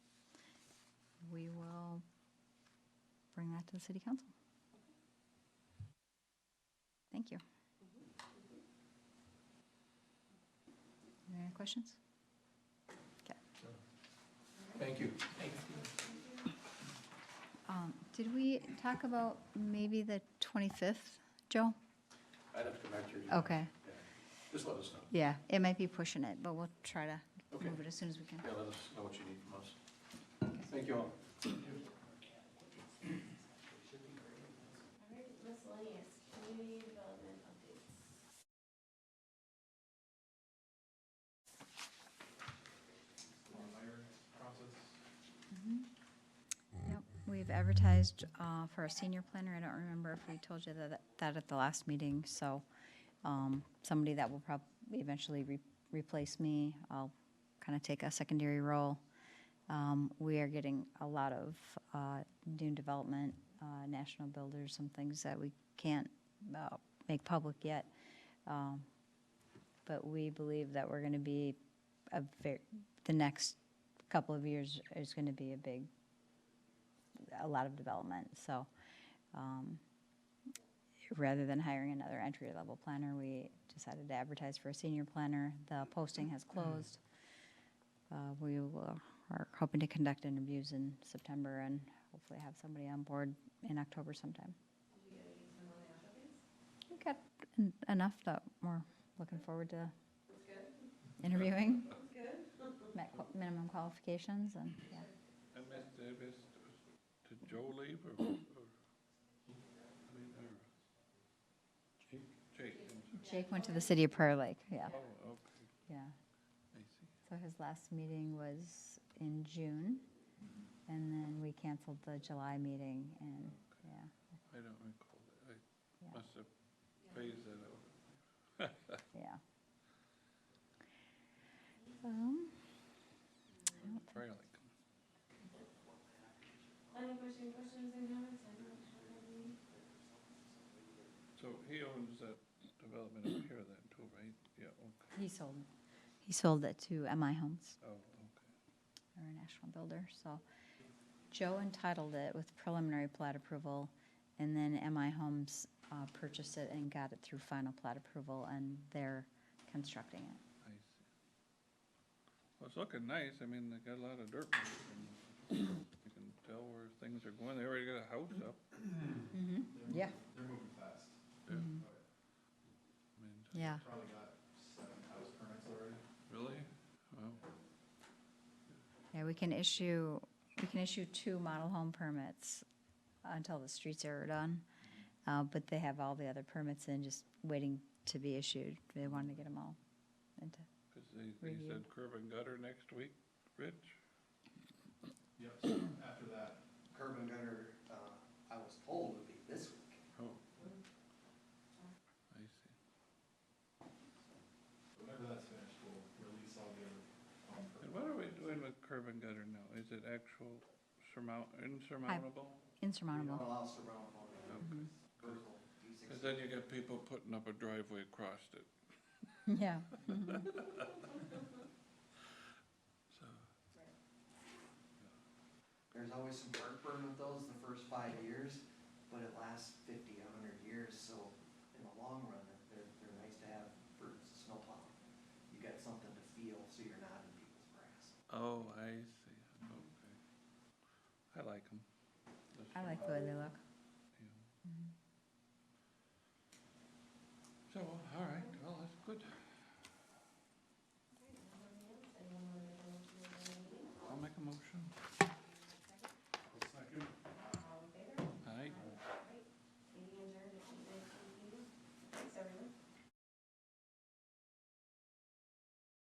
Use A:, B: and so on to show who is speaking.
A: to the city council. Thank you. Any other questions? Okay.
B: Thank you.
A: Um, Did we talk about maybe the 25th, Joe?
B: I'd have to come back to you.
A: Okay,
B: Yeah. Just let us know.
A: yeah, it might be pushing it, but we'll try to
B: Okay.
A: move it as soon as we can.
B: Yeah, let us know what you need from us. Thank you all.
C: All right, miscellaneous, community development updates.
A: Mm-hmm. Yep, We've advertised uh, for a senior planner. I don't remember if we told you that, that at the last meeting, so um, somebody that will probably eventually re- replace me. I'll kind of take a secondary role. Um, We are getting a lot of uh, new development, uh, national builders, some things that we can't uh, make public yet. Um, But we believe that we're going to be, a ver- the next couple of years is going to be a big a lot of development. So um, rather than hiring another entry level planner, we decided to advertise for a senior planner. The posting has closed. Uh, we will, are hoping to conduct interviews in September and hopefully have somebody on board in October sometime. We got en- enough that we're looking forward to interviewing. Met qu- minimum qualifications and yeah.
D: I missed, I missed, did Joe leave or, or, I mean, or? Jake, Jake, I'm sorry.
A: Jake went to the city of Prairie Lake. Yeah,
D: oh, okay,
A: yeah.
D: I see.
A: So his last meeting was in June, and then we canceled the July meeting, and, yeah,
D: I don't recall that.
A: Yeah.
D: I must have phased that out.
A: yeah. Um,
D: Trailing.
C: Planning commission questions and comments, I don't have any.
D: So he owns that development over here then too, right? Yeah, okay,
A: He sold, he sold it to MI Homes,
D: oh, okay.
A: or a national builder, so. Joe entitled it with preliminary plat approval, and then MI Homes uh, purchased it and got it through final plat approval, and they're constructing it.
D: I see. Well, it's looking nice, I mean, they got a lot of dirt, you can, you can tell where things are going, they already got a house up.
A: Mm-hmm, yeah. They're moving fast.
D: I mean,
A: Mm-hmm. Yeah,
D: Really? Wow,
A: yeah, we can issue, we can issue two model home permits until the streets are done. Uh, but they have all the other permits in, just waiting to be issued. They wanted to get them all into,
D: cause they, they
A: Review.
D: said curb and gutter next week, Rich?
E: Yep, so after that, curb and gutter, uh, I was told would be this week.
D: Oh. I see.
E: Whenever that's finished, we'll release all the other. um, permits.
D: And what are we doing with curb and gutter now? Is it actual surmount, insurmountable?
E: We don't
A: insurmountable. Mm-hmm.
E: allow surmountable,
D: Okay.
E: vertical, these
D: Cause
E: things.
D: then you get people putting up a driveway across it,
A: Yeah. mhm.
D: so.
E: There's always some heartburn with those the first five years, but it lasts fifty, a hundred years, so in the long run, they're, they're nice to have for snowplow. You got something to feel, so you're not in people's grass.
D: Oh, I see, okay. I like them.
A: I like the way they look. Mm-hmm.
D: So, all right, well, that's good.